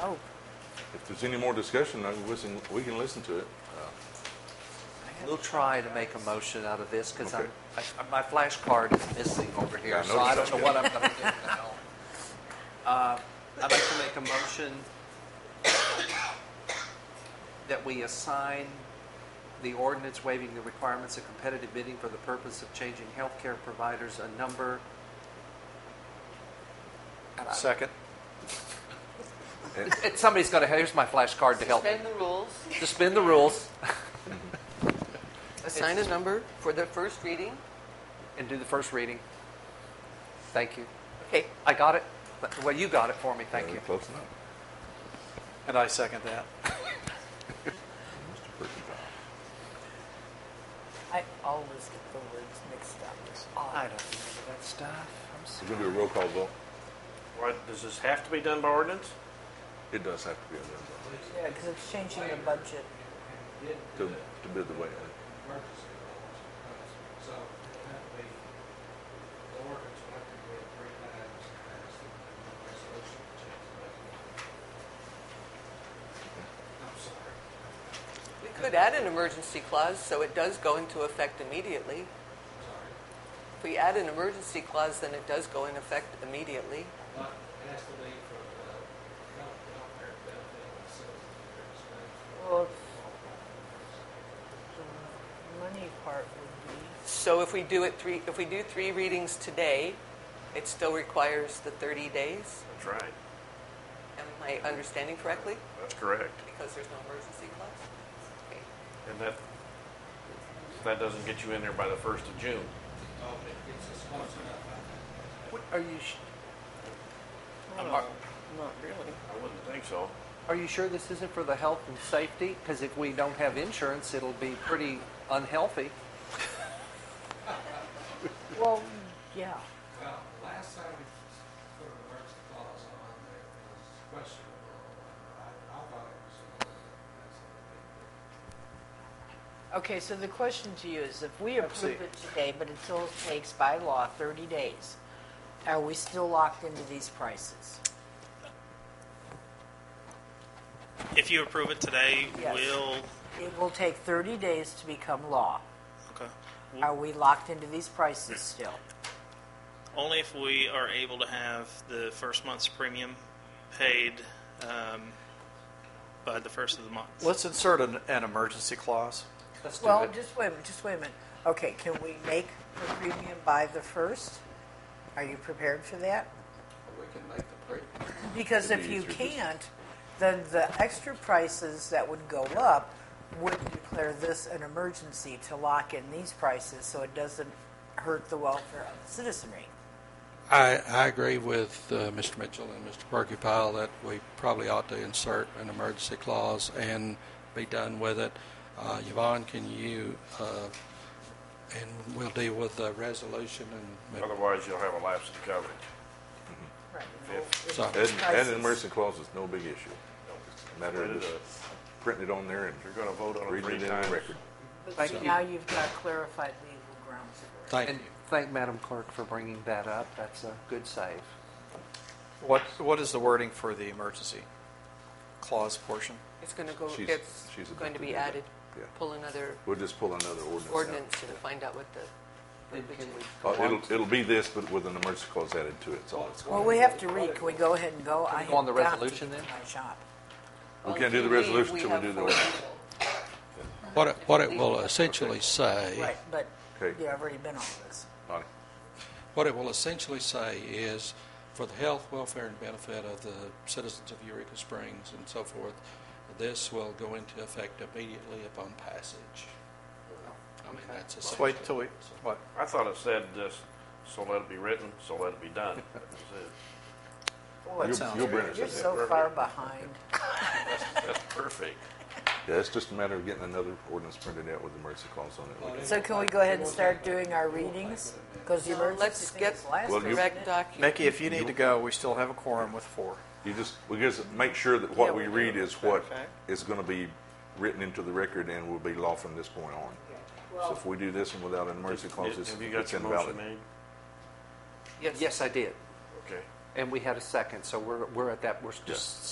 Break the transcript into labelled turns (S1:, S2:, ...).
S1: Oh,
S2: If there's any more discussion, I can listen, we can listen to it.
S3: We'll try to make a motion out of this, because I'm,
S2: Okay.
S3: I- my flashcard is missing over
S2: Yeah,
S3: here,
S2: I
S3: so I don't
S2: noticed
S3: know
S2: that.
S3: what I'm going to do now. Uh, I'd like to make a motion that we assign the ordinance waiving the requirements of competitive bidding for the purpose of changing healthcare providers a number. And I-
S4: Second.
S2: And-
S3: and Somebody's going to, here's my flashcard to help me.
S1: suspend the rules,
S3: Suspend the rules
S1: assign a number for the first reading.
S3: and do the first reading. Thank you.
S1: Okay,
S3: I got it. Well, you got it for me. Thank you.
S2: Uh, Close enough.
S4: And I second that.
S2: Mr. Kirkendall.
S5: I always get the words mixed up.
S3: I don't remember that stuff. I'm
S2: We're gonna do a roll call vote.
S6: Why, does this have to be done by ordinance?
S2: It does have to be a roll
S5: Yeah, because it's changing the budget.
S2: call to, to bid the way.
S7: So it had to be, the ordinance went to be three times passed, and the resolution changed back. I'm sorry.
S1: we could add an emergency clause, so it does go into effect immediately.
S7: Sorry.
S1: If we add an emergency clause, then it does go in effect immediately.
S7: But it has to be for the health, healthcare benefit of the citizens of Green Springs.
S5: Well, it's- the money part would be.
S1: So if we do it three, if we do three readings today, it still requires the 30 days.
S6: That's right.
S1: Am I understanding correctly?
S6: That's correct.
S1: Because there's no emergency clause? Okay.
S6: And that, that doesn't get you in there by the first of June.
S7: Oh, it gets us close enough, I think.
S3: What, are you sh-
S5: No,
S6: not-
S5: not really.
S6: I wouldn't think so.
S3: are you sure this isn't for the health and safety? Because if we don't have insurance, it'll be pretty unhealthy.
S5: Well, yeah.
S7: Well, last time we put an emergency clause on there, it was questionable. I, I thought it was, that's a big deal.
S5: Okay, so the question to you is, if we approve
S4: Absolutely.
S5: it today, but it still takes by law 30 days, are we still locked into these prices?
S8: If you approve it today,
S5: Yes.
S8: we'll,
S5: It will take 30 days to become law.
S8: okay.
S5: Are we locked into these prices still?
S8: Only if we are able to have the first month's premium paid um, by the first of the month.
S4: Let's insert an, an emergency clause.
S3: Let's do
S5: Well,
S3: it.
S5: just wait a minute, just wait a minute. Okay, can we make the premium by the first? Are you prepared for that?
S7: We can make the pre,
S5: Because if
S2: Maybe
S5: you
S2: it's your-
S5: can't, then the extra prices that would go up would declare this an emergency to lock in these prices so it doesn't hurt the welfare of the citizenry.
S7: I, I agree with uh, Mr. Mitchell and Mr. Perkypile that we probably ought to insert an emergency clause and be done with it. Uh, Yvonne, can you, uh, and we'll deal with the resolution and,
S6: Otherwise, you'll have a lapse in coverage.
S5: Right.
S6: If-
S7: so,
S2: Add, add an
S5: Prices.
S2: emergency clause is no big issue. It's a Matter
S6: Wait
S2: of
S6: it
S2: just
S6: up.
S2: printing it on there and
S6: You're gonna vote on it
S2: reading
S6: three
S2: it in the
S6: times.
S2: record.
S3: Thank you.
S5: Now you've got clarified legal grounds for it.
S7: thank
S3: and
S7: you.
S3: thank Madam Clerk for bringing that up. That's a good save.
S4: What, what is the wording for the emergency clause portion?
S1: It's going to go,
S2: She's-
S1: it's
S2: she's about
S1: going to
S2: to
S1: be
S2: do that.
S1: added.
S2: Yeah.
S1: Pull another
S2: We'll just pull another ordinance out.
S1: ordinance and find out what the
S3: Can we
S1: verbiage is.
S2: Uh, It'll, it'll be this, but with an emergency clause added to it, that's all it's
S5: Well,
S2: going to
S5: we have to read, can we go ahead and go? I
S3: go on
S5: have
S3: the
S5: got to
S3: resolution
S5: get
S3: then?
S5: to My shop.
S2: We can't do the resolution till we do the ordinance.
S7: What it, what it will essentially say,
S5: Right, but
S2: Okay.
S5: you've already been on this.
S2: Bonnie?
S7: what it will essentially say is, for the health, welfare, and benefit of the citizens of Eureka Springs and so forth, this will go into effect immediately upon passage. I mean, that's
S4: Let's
S7: essentially.
S4: wait till we, what?
S6: I thought it said this, so let it be written, so let it be done. That was it.
S5: Boy,
S2: You'll-
S4: sounds
S2: you'll bring
S4: great.
S2: us
S5: You're
S2: up.
S5: so far behind.
S6: That's perfect.
S2: Yeah, it's just a matter of getting another ordinance printed out with the emergency clause on it. We can-
S5: So can we go ahead and start doing our readings? Because the emergency
S1: Let's
S5: thing
S1: get
S5: is last
S2: Well,
S5: week.
S2: you-
S1: correct document.
S4: Mickey, if you need to go, we still have a quorum with four.
S2: You just, we just make sure that what
S5: Yeah,
S2: we
S5: we
S2: read is what
S4: Okay.
S2: is going to be written into the record and will be law from this point on. So if we do this one without an emergency clause, it's
S6: Have you got
S2: it's
S6: your motion
S2: invalid.
S6: made?
S3: Yes, I did.
S6: Okay.
S3: And we had a second, so we're, we're at that, we're
S2: Yeah.
S3: just